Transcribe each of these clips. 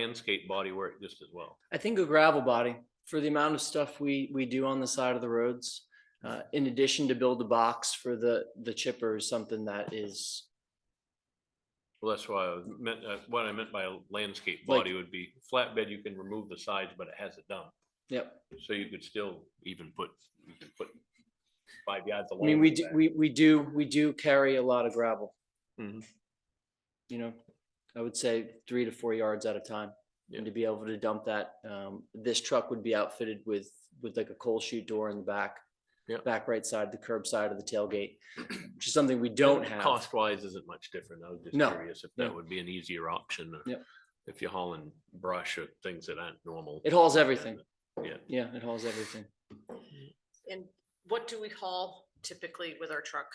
landscape body work just as well. I think a gravel body for the amount of stuff we, we do on the side of the roads. Uh, in addition to build a box for the, the chipper is something that is Well, that's why I was meant, uh, what I meant by a landscape Like- body would be flatbed, you can remove the sides, but it has a dump. Yep. So you could still even put, you could put five yards. of I mean, lawn we in do, the we, we do, we do carry a lot of gravel. Mhm. You know, I would say three to four yards at a time. And Yeah. to be able to dump that, um, this truck would be outfitted with, with like a coal chute door in the back. Yeah. Back right side, the curb side of the tailgate, which is something we back. don't have. Cost wise isn't much different. I was just No, curious if no. that would be an easier option. or Yep. If you're hauling brush or things that aren't normal. It hauls everything. Yeah. Yeah, it hauls everything. And what do we haul typically with our truck?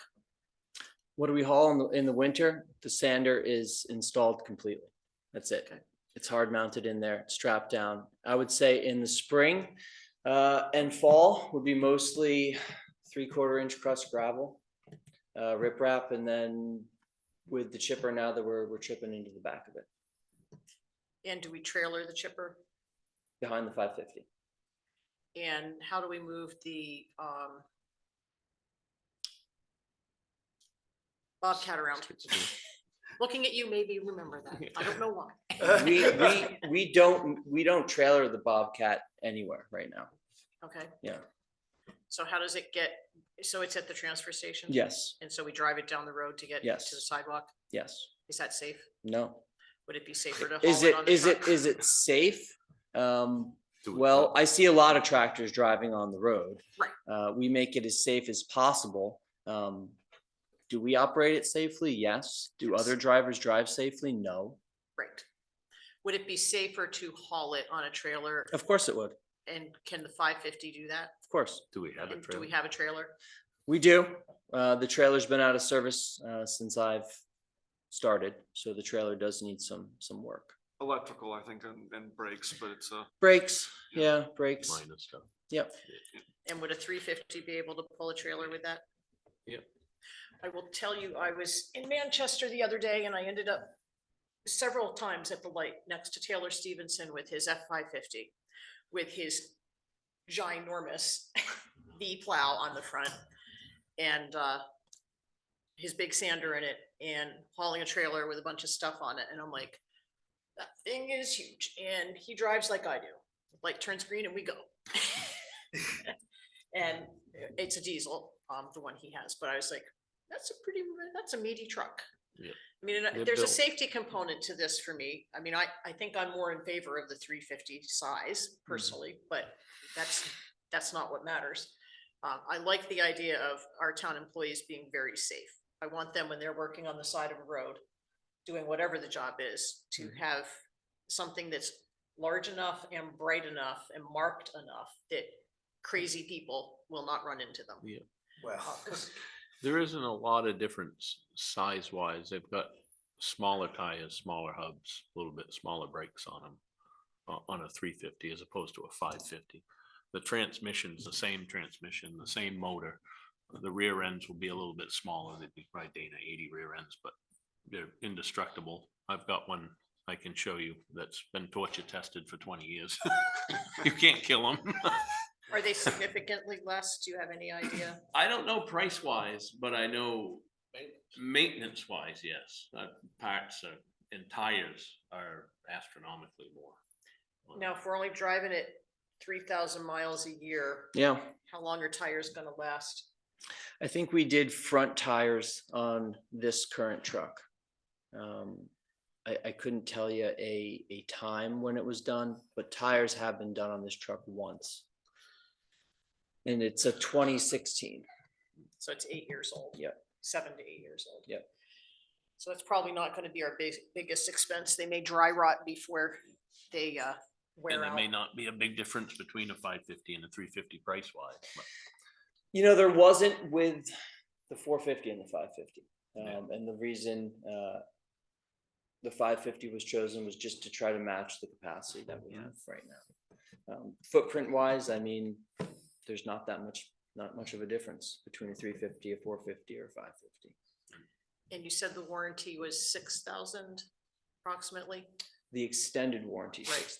What do we haul in the, in the winter? The sander is installed completely. That's it. Okay. It's hard mounted in there, strapped down. I would say in the spring uh, and fall would be mostly three quarter inch crust gravel, uh, riprap, and then with the chipper now that we're, we're chipping into the back of it, And do we trailer the chipper? behind the five fifty. And how do we move the um Bobcat around? Looking at you, maybe you remember that. I don't know why. We, we, we don't, we don't trailer the Bobcat anywhere right now. Okay. Yeah. So how does it get, so it's at the transfer station? Yes, And so we drive it down the road to get Yes. to the sidewalk? yes, Is that safe? no. Would it be safer to Is haul it, it on the is it, truck? is it safe? Um, Do it. Well, I see a lot of tractors driving on the road. Right. Uh, we make it as safe as possible. Um, do we operate it safely? Yes. Do Yes. other drivers drive safely? No. Right. Would it be safer to haul it on a trailer? Of course it would. Of And can the five fifty do that? course. Do we have a And Do trailer? we have a trailer? We do. Uh, the trailer's been out of service, uh, since I've started, so the trailer does need some, some work. electrical, I think, and, and brakes, but it's a, Brakes, yeah, brakes. Minus stuff. Yep. And would a three fifty be able to pull a trailer with that? Yep. I will tell you, I was in Manchester the other day and I ended up several times at the light next to Taylor Stevenson with his F five fifty, with his ginormous V plow on the front and uh his big sander in it and hauling a trailer with a bunch of stuff on it. And I'm like, that thing is huge. And he drives like I do, like turns green and we go. And it's a diesel, um, the one he has, but I was like, that's a pretty, that's a meaty truck. Yeah. I mean, and I- They're there's a built. safety component to this for me. I mean, I, I think I'm more in favor of the three fifty size Mm-hmm. personally, but that's, that's not what matters. Um, I like the idea of our town employees being very safe. I want them when they're working on the side of a road, doing whatever the job is, to have something that's large enough and bright enough and marked enough that crazy people will not run into them. Yeah. Uh, 'cause- There isn't a lot of difference size wise. They've got smaller tires, smaller hubs, a little bit smaller brakes on them. On a three fifty as opposed to a five fifty. The transmission's the same transmission, the same motor. The rear ends will be a little bit smaller. They'd be probably Dana eighty rear ends, but they're indestructible. I've got one I can show you that's been torture tested for twenty years. You can't kill them. Are they significantly less? Do you have any idea? I don't know price wise, but I know maintenance wise, yes, uh, parts are- and tires are astronomically more. Now, if we're only driving it three thousand miles a year, Yeah. how long are tires gonna last? I think we did front tires on this current truck. Um, I, I couldn't tell you a, a time when it was done, but tires have been done on this truck once. And it's a twenty sixteen. So it's eight years old. Yep. Seven to eight years old. Yep. So that's probably not gonna be our big, biggest expense. They may dry rot before they uh And wear there out. may not be a big difference between a five fifty and a three fifty price wise, but You know, there wasn't with the four fifty and the five fifty. Yeah. Um, and the reason, uh, the five fifty was chosen was just to try to match the capacity that we have right now. Um, footprint wise, I mean, there's not that much, not much of a difference between a three fifty, a four fifty or five fifty. And you said the warranty was six thousand approximately? the extended warranty Right. six